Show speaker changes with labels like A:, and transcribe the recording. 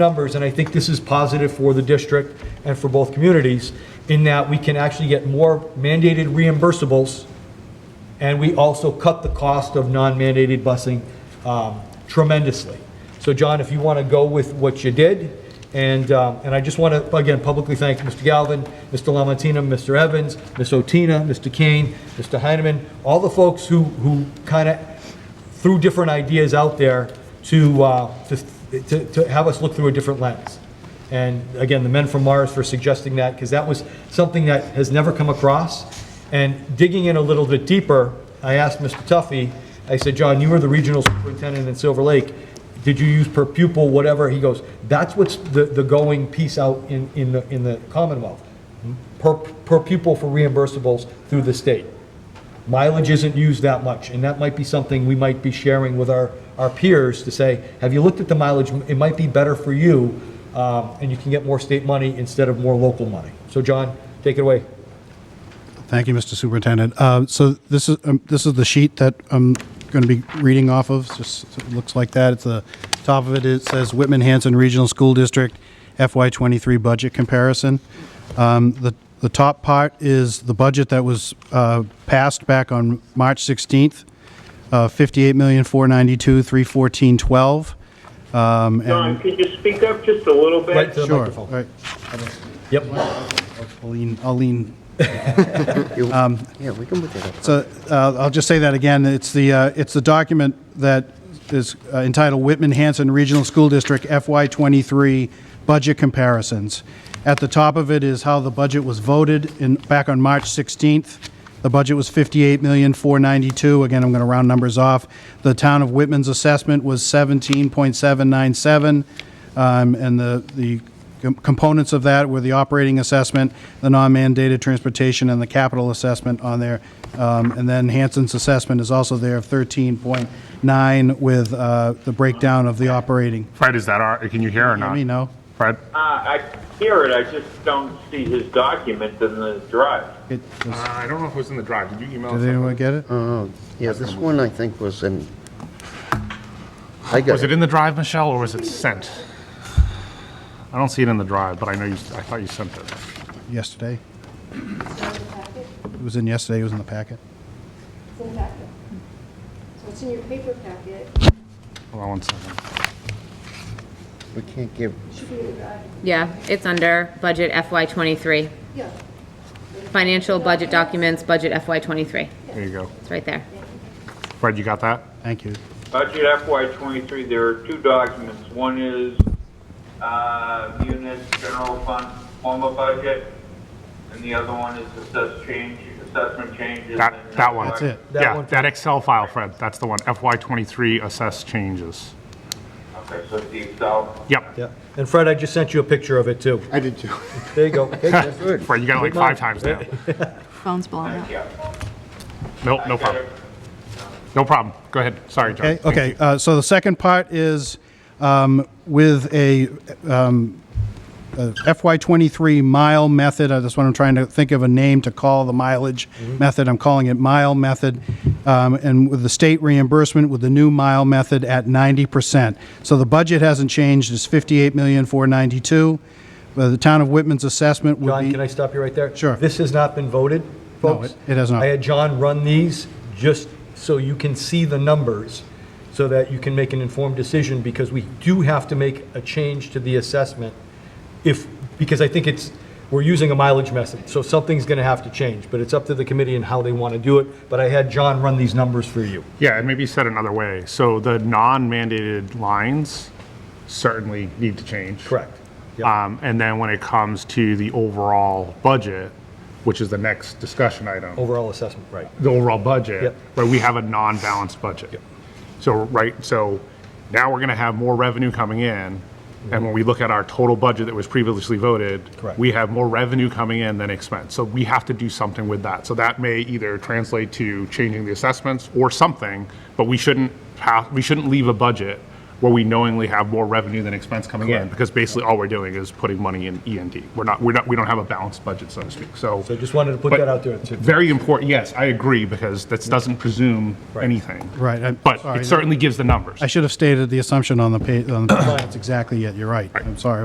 A: numbers, and I think this is positive for the district and for both communities, in that we can actually get more mandated reimbursables, and we also cut the cost of non-mandated busing um, tremendously. So John, if you want to go with what you did, and, um, and I just want to, again, publicly thank Mr. Galvin, Mr. Lamontina, Mr. Evans, Ms. Otina, Mr. Kane, Mr. Heineman, all the folks who, who kind of threw different ideas out there to, uh, to, to to have us look through a different lens. And again, the men from Mars for suggesting that, because that was something that has never come across. And digging in a little bit deeper, I asked Mr. Tuffy, I said, John, you were the regional superintendent in Silver Lake. Did you use per pupil, whatever? He goes, that's what's the, the going piece out in, in the, in the Commonwealth. Per, per pupil for reimbursables through the state mileage isn't used that much, and that might be something we might be sharing with our, our peers to say, have you looked at the mileage? It might be better for you, um, and you can get more state money instead of more local money. So John, take it away.
B: Thank you, Mr. Superintendent. Uh, So this is, um, this is the sheet that I'm going to be reading off of, It's just, it looks like that. It's the, top of it, it says Whitman Hanson Regional School District FY23 Budget Comparison. Um, The, the top part is the budget that was uh, passed back on March 16th, uh, 58,492, 31412. Um,
C: Don,
B: and-
C: could you speak up just a little bit?
A: Right to the
B: Sure,
A: microphone.
B: right.
A: Yep.
B: I'll lean, I'll lean
D: Yeah, we can look it up.
B: Um, So uh, I'll just say that again. It's the, uh, it's the document that is uh, entitled Whitman-Hanson Regional School District FY23 Budget Comparisons. At the top of it is how the budget was voted in, back on March 16th. The budget was 58,492. Again, I'm going to round numbers off. The town of Whitman's assessment was 17.797, um, and the, the Com- Components of that were the operating assessment, the non-mandated transportation, and the capital assessment on there. Um, And then Hanson's assessment is also there of 13.9 with uh, the breakdown of the operating.
E: Fred, is that our, can you hear or not?
B: Let me know.
E: Fred?
C: Uh, I hear it, I just don't see his document in the drive.
B: It- does-
E: Uh, I don't know if it was in the drive. Did you email
B: Did anyone get it?
D: Oh, yeah, this one I think was in, I
E: Was
D: got
E: it
D: it.
E: in the drive, Michelle, or was it sent? I don't see it in the drive, but I know you, I thought you sent it.
B: Yesterday? It was in yesterday, it was in the packet.
F: It's in the packet. So it's in your paper packet,
E: Hold on one second.
D: We can't give,
F: should be in the, uh,
G: Yeah, it's under budget FY '23.
F: yeah.
G: Financial budget documents, budget FY '23.
E: There you go.
G: It's right there.
E: Fred, you got that?
B: Thank you.
C: Budget FY twenty-three, there are two documents. One is, uh, unit general fund formal budget, and the other one is assess change, assessment changes.
E: That,
C: and-
E: that one.
B: That's it.
A: That
E: Yeah,
A: one.
E: that Excel file, Fred. That's the one. FY23 assess changes.
C: Okay, so it's the Excel.
E: Yep.
A: Yeah. And Fred, I just sent you a picture of it too.
D: I did too.
A: There you go. Take it.
E: Fred, you got it like five times now.
H: Phone's blowing up.
C: Yeah.
E: No, no problem. No problem. Go ahead. Sorry, John.
B: Okay, okay, uh, so the second part is um, with a um, FY23 mile method, uh, that's what I'm trying to think of a name to call the mileage
A: Mm-hmm.
B: method, I'm calling it mile method, Um, and with the state reimbursement with the new mile method at 90%. So the budget hasn't changed, it's 58,492. But Uh, The town of Whitman's assessment would
A: John,
B: be...
A: can I stop you right there?
B: Sure.
A: This has not been voted,
B: No,
A: folks?
B: it- it has not.
A: I had John run these just so you can see the numbers, so that you can make an informed decision, because we do have to make a change to the assessment if, because I think it's, we're using a mileage method, so something's going to have to change, but it's up to the committee and how they want to do it. But I had John run these numbers for you.
E: Yeah, and maybe said another way. So the non-mandated lines certainly need to change.
A: Correct. Yep.
B: Uh,
E: Um, and then when it comes to the overall budget, which is the next discussion item,
A: Overall assessment, right.
E: the overall budget,
A: Yep.
E: right, we have a non-balanced budget. So, right, so now we're gonna have more revenue coming in. And when we look at our total budget that was previously voted,
A: Correct.
E: we have more revenue coming in than expense. So we have to do something with that. So that may either translate to changing the assessments or something, but we shouldn't pass, we shouldn't leave a budget where we knowingly have more revenue than expense coming in,
A: Correct.
E: because basically all we're doing is putting money in E and D. We're not, we're not, we don't have a balanced budget, so to speak, so.
A: So just wanted to put
E: But
A: that out there too.
E: Very important, yes, I agree, because that doesn't presume anything.
B: Right, I'm
E: But
B: sorry.
E: it certainly gives the numbers.
B: I should have stated the assumption on the page, on the, that's exactly it, you're right. I'm sorry,